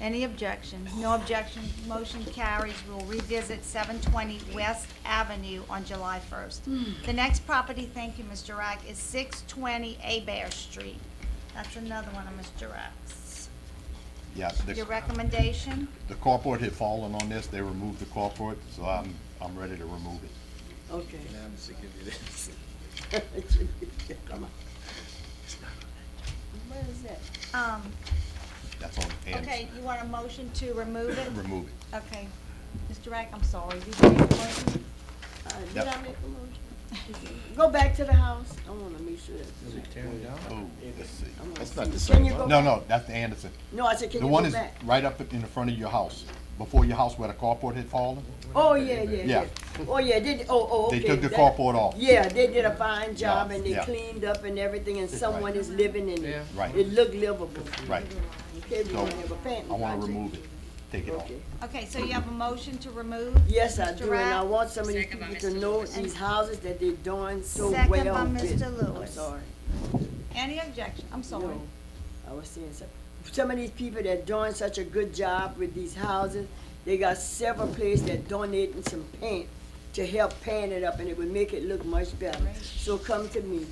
Any objection? No objection, motion carries. We'll revisit 720 West Avenue on July Hmm. 1st. The next property, thank you, Mr. Rack, is 620 Abear Street. That's another one of Mr. Rack's. Yeah, Your the, recommendation? the carport had fallen on this, they removed the carport, so I'm, I'm ready to remove it. Okay. I'm sick of you this. Come on. Where is it? Um, That's on Anderson. Okay, you want a motion to remove it? Remove it. Okay. Mr. Rack, I'm sorry, did you make a motion? Uh, Did Yep. I make a motion? Go back to the house. I wanna make sure that's. right. Oh, let's see. I wanna That's not the see. same Can you Oh. one. go- No, no, that's the Anderson. No, I said, can The you one go is back? right up in the front of your house, before your house where the carport had fallen. Oh, yeah, Yeah. yeah, yeah. Oh, yeah, did, oh, oh, okay. They took the that- carport off. Yeah, they did a fine job Yeah, and they yeah. cleaned up and everything and someone is living in it. Right. It looked livable. Right. Okay, we So, wanna have a family. I wanna project. remove it, take it off. Okay. Okay, so you have a motion to remove? Yes, I Mr. do, and I Rapp? want some of these Second by people to Mr. know Lewis. these houses that they doing so well Second by with. Mr. I'm Lewis. sorry. Any objection? I'm sorry. No, I was saying some, some of these people that doing such a good job with these houses, they got several places that donating some paint to help paint it up and it would make it look much better. So come to me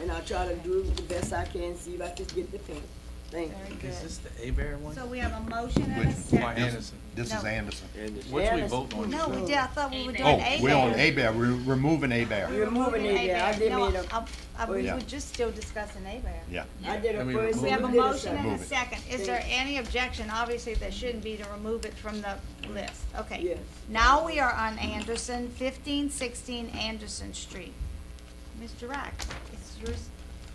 and I'll try to do the best I can, see if I can get the paint. Thank you. Very Is this good. the Abear one? So we have a motion and a Which- Why, second. Anderson? This is No. Anderson. Which we Yes. vote on? No, we did, I thought we were doing Oh, A we're on bear. A-Bear, we're removing A-Bear. You're moving it there, I did No, made a, I- I- Oh, we Yeah. were just still discussing A bear. Yeah. I did a Can we first. remove We have a and did motion second. and Move a it. second. Is there any objection? Obviously, there shouldn't be to remove it from the list. Okay. Yes. Now we are on Anderson, fifteen sixteen Anderson Street. Mr. Rack, it's yours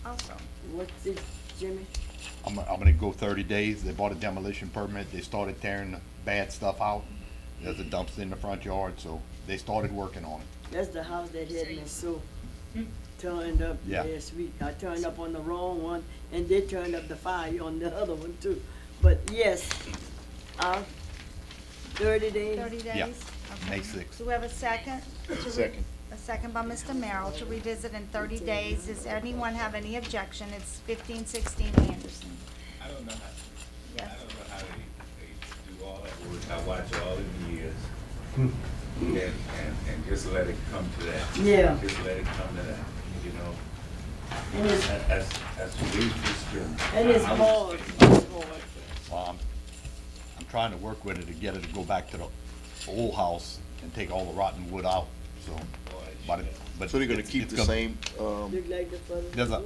also. What's this, Jimmy? I'm, I'm gonna go thirty days, they bought a demolition permit, they started tearing the bad stuff out. There's a dumpster in the front yard, so they started working on it. That's the house that had me so turned up Yeah. last week. I turned up on the wrong one and they turned up the fire on the other one too. But yes, uh, thirty days. Thirty Yeah. days? Okay. May sixth. Do we have a second? Second. A second by Mr. Merrill to revisit in thirty days. Does anyone have any objection? It's fifteen sixteen Anderson. I don't know how, I Yes. don't know how they, they do all that work. I watch all the years. And, and, and just let it come to that. Yeah. Just let it come to that, you know? And it's, That- That's, that's what we just do. and it's hard, it's hard. Well, I'm, I'm trying to work with it to get it to go back to the old house and take all the rotten wood out, so. but it- but So they're gonna it's- keep it's the gonna- same, um, Look like the father. There's a,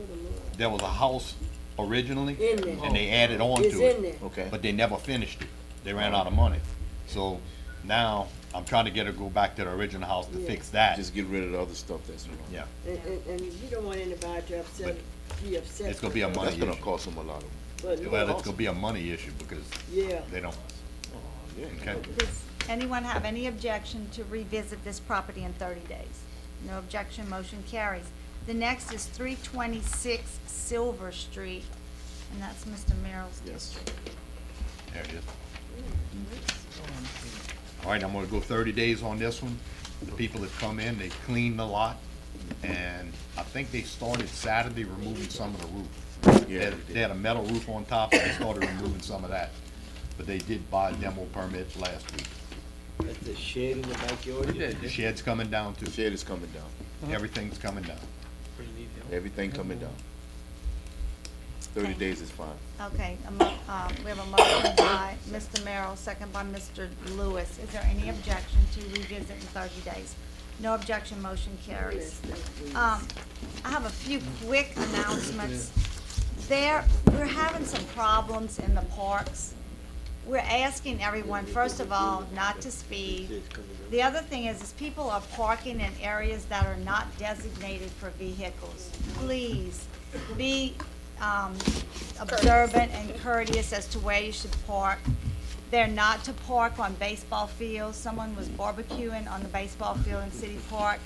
there was a house originally, In there. and they added on to it. Oh. It's in there. okay. But they never finished it. They ran out of money. So now, I'm trying to get her to go back to the original house to Yeah. fix that. Just get rid of the other stuff that's wrong. Yeah, And, and, and you don't want anybody to upset, be upset. it's gonna be a That's money gonna issue. cost them a lot of, But Well, no, it's gonna be a money issue because Yeah, they don't, Oh, yeah. okay? Does anyone have any objection to revisit this property in 30 days? No objection, motion carries. The next is 326 Silver Street, and that's Mr. Merrill's. Yes. There it is. All right, I'm gonna go thirty days on this one. The people that come in, they clean the lot, and I think they started Saturday removing some of the roof. They Yeah, had- They had a metal roof on top, and they started removing some of that, but they did buy demo permits last week. That's the shed in the backyard. The shed's coming down The too, shed is coming down, everything's coming down. everything coming down. Thirty Okay. days is fine. Okay, a mo- um, we have a motion by Mr. Merrill, second by Mr. Lewis. Is there any objection to revisit in 30 days? No objection, motion carries. Um, I have a few quick announcements. There, we're having some problems in the parks. We're asking everyone, first of all, not to speed. The other thing is, is people are parking in areas that are not designated for vehicles. Please, be, um, observant and courteous as to where you should park. They're not to park on baseball fields. Someone was barbecuing on the baseball field in City Park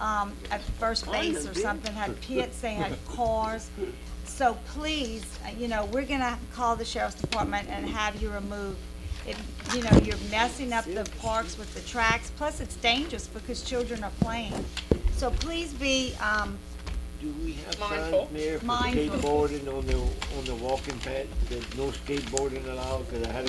um, at first base or something, had pits, they had cars. So please, uh, you know, we're gonna call the sheriff's department and have you removed. It, you know, you're messing up the parks with the tracks, plus it's dangerous because children are playing. So please be, um, Do we have Mindful. signs, Mayor, for Mindful. skateboarding on the, on the walking path, that no skateboarding allowed? Cause I had a